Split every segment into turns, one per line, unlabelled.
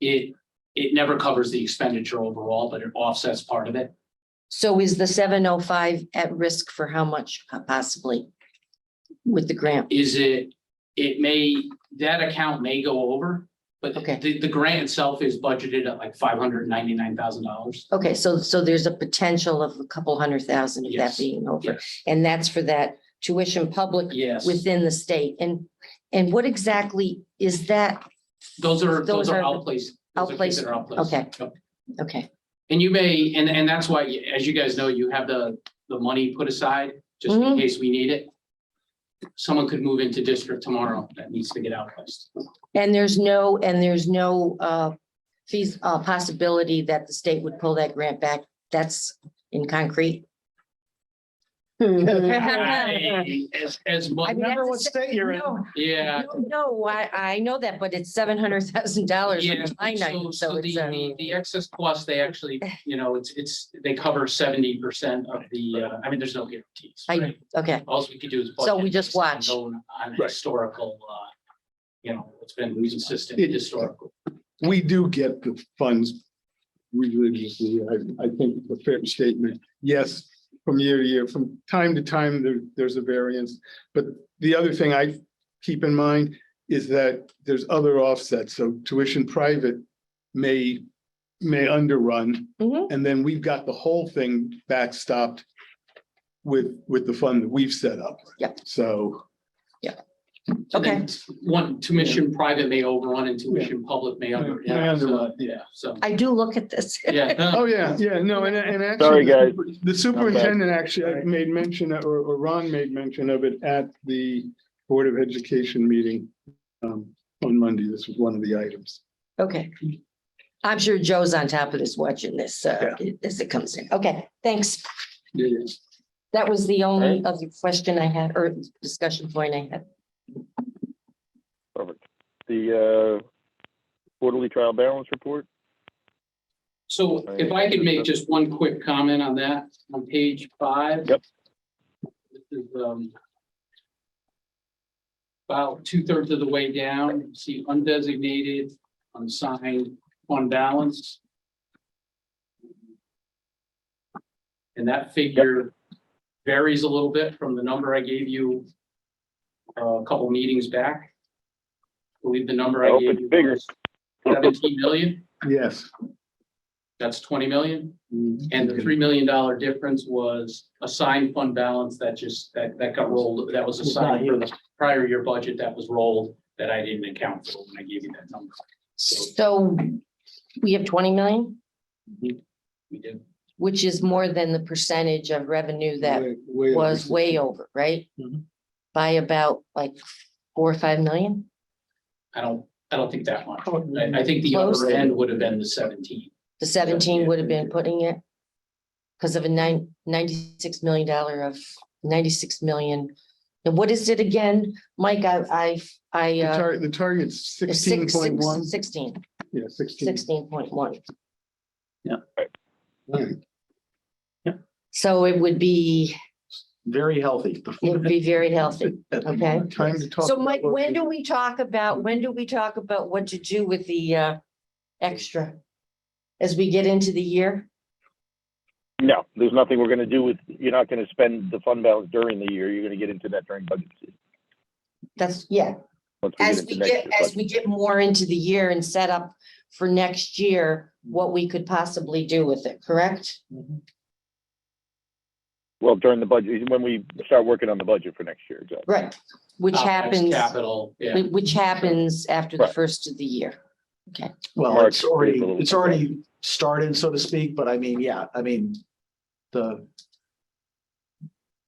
it, it never covers the expenditure overall, but it offsets part of it.
So is the seven oh five at risk for how much uh, possibly? With the grant?
Is it, it may, that account may go over, but
Okay.
the, the grant itself is budgeted at like five hundred ninety-nine thousand dollars.
Okay, so, so there's a potential of a couple hundred thousand of that
Yes,
being over.
yes.
And that's for that tuition public
Yes,
within the state. And, and what exactly is that?
those are,
those
those are
are
outplaced. those are kids that are outplaced.
Okay.
Yep.
Okay,
And you may, and, and that's why, as you guys know, you have the, the money put aside, just in
Mhm.
case we need it. Someone could move into district tomorrow that needs to get outplaced.
and there's no, and there's no, uh, fees, uh, possibility that the state would pull that grant back? That's in concrete?
As, as much,
Remember what state you're in.
No,
yeah.
no, I, I know that, but it's seven hundred thousand dollars.
Yeah, so, so the,
um,
the, the excess cost, they actually, you know, it's, it's, they cover seventy percent of the, uh, I mean, there's no guarantees.
I- Okay,
All we could do is.
So we
budget
just
based on
watch.
known- On
Right.
historical, uh, you know, it's been consistent
It-
historical.
We do get the funds religiously. I, I think it's a fair statement. Yes, from year to year, from time to time, there, there's a variance. But the other thing I keep in mind is that there's other offsets. So tuition private may, may underrun.
Mhm.
And then we've got the whole thing backstopped with, with the fund that we've set up.
Yep.
So,
And then
Okay.
t- One, tuition private may overrun and tuition public may under,
Yeah,
yeah, so,
underrun,
yeah, so,
I do look at this.
yeah. no,
oh, yeah, yeah, no, and, and actually.
Sorry, guys.
The superintendent actually uh, made mention, or, or Ron made mention of it at the Board of Education meeting um, on Monday. This was one of the items.
Okay. I'm sure Joe's on top of this watching this, uh, as it comes in. Okay, thanks. That was the only other question I had or discussion point I had.
Perfect. The uh, quarterly trial balance report?
So if I could make just one quick comment on that, on page five.
Yep.
This is, um, About two thirds of the way down, see undesignated, unsigned, fund balance. And that figure varies a little bit from the number I gave you uh, a couple meetings back. I Believe the number
I
I
hope
gave
it's
you
bigger.
was seventeen million.
Yes.
That's twenty million, and the three million dollar difference was assigned fund balance that just, that, that got rolled, that was assigned for the prior year budget that was rolled, that I didn't account for when I gave you that number.
So we have twenty million,
We did,
which is more than the percentage of revenue that
Way- way over
was
six.
way over, right?
Mhm.
By about like four or five million?
I don't, I don't think that much.
Oh,
I, I think the other
Close.
end would have been the seventeen.
The seventeen
yeah.
would have been putting it. Because of a nine, ninety-six million dollar of ninety-six million. And what is it again? Mike, I, I, I,
The
uh,
tar- the target's
it's
sixteen
six-
point one.
six- sixteen,
Yeah, sixteen.
sixteen point one.
Right.
So it would be,
very healthy.
it would be very healthy, okay?
Time to talk.
So Mike,
about-
when do we talk about, when do we talk about what to do with the, uh, extra? As we get into the year?
No, there's nothing we're gonna do with, you're not gonna spend the fund balance during the year. You're gonna get into that during budget season.
That's, yeah,
once
As we
into next
get,
year's
as we get more into the year and set up for next year, what we could possibly do with it, correct?
budget. Well, during the budget, when we start working on the budget for next year, exactly.
Right. Which
OpEx,
happens,
Capital, Uh, yeah.
whi- which happens after the
Right.
first of the year.
Well,
March,
it's already,
April.
it's already started, so to speak, but I mean, yeah, I mean, the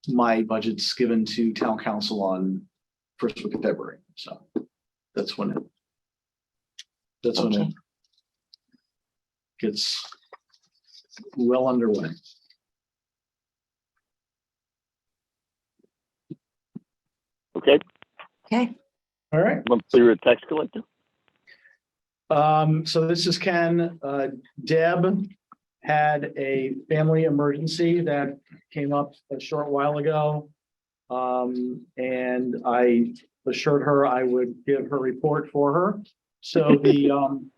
my budget's given to town council on first week of February, so that's when it that's when it
Okay.
gets well underway.
Okay,
Okay,
All right.
monthly you're a tax collector?
Um, so this is Ken. Uh, Deb had a family emergency that came up a short while ago. Um, and I assured her I would give her report for her. So the, um,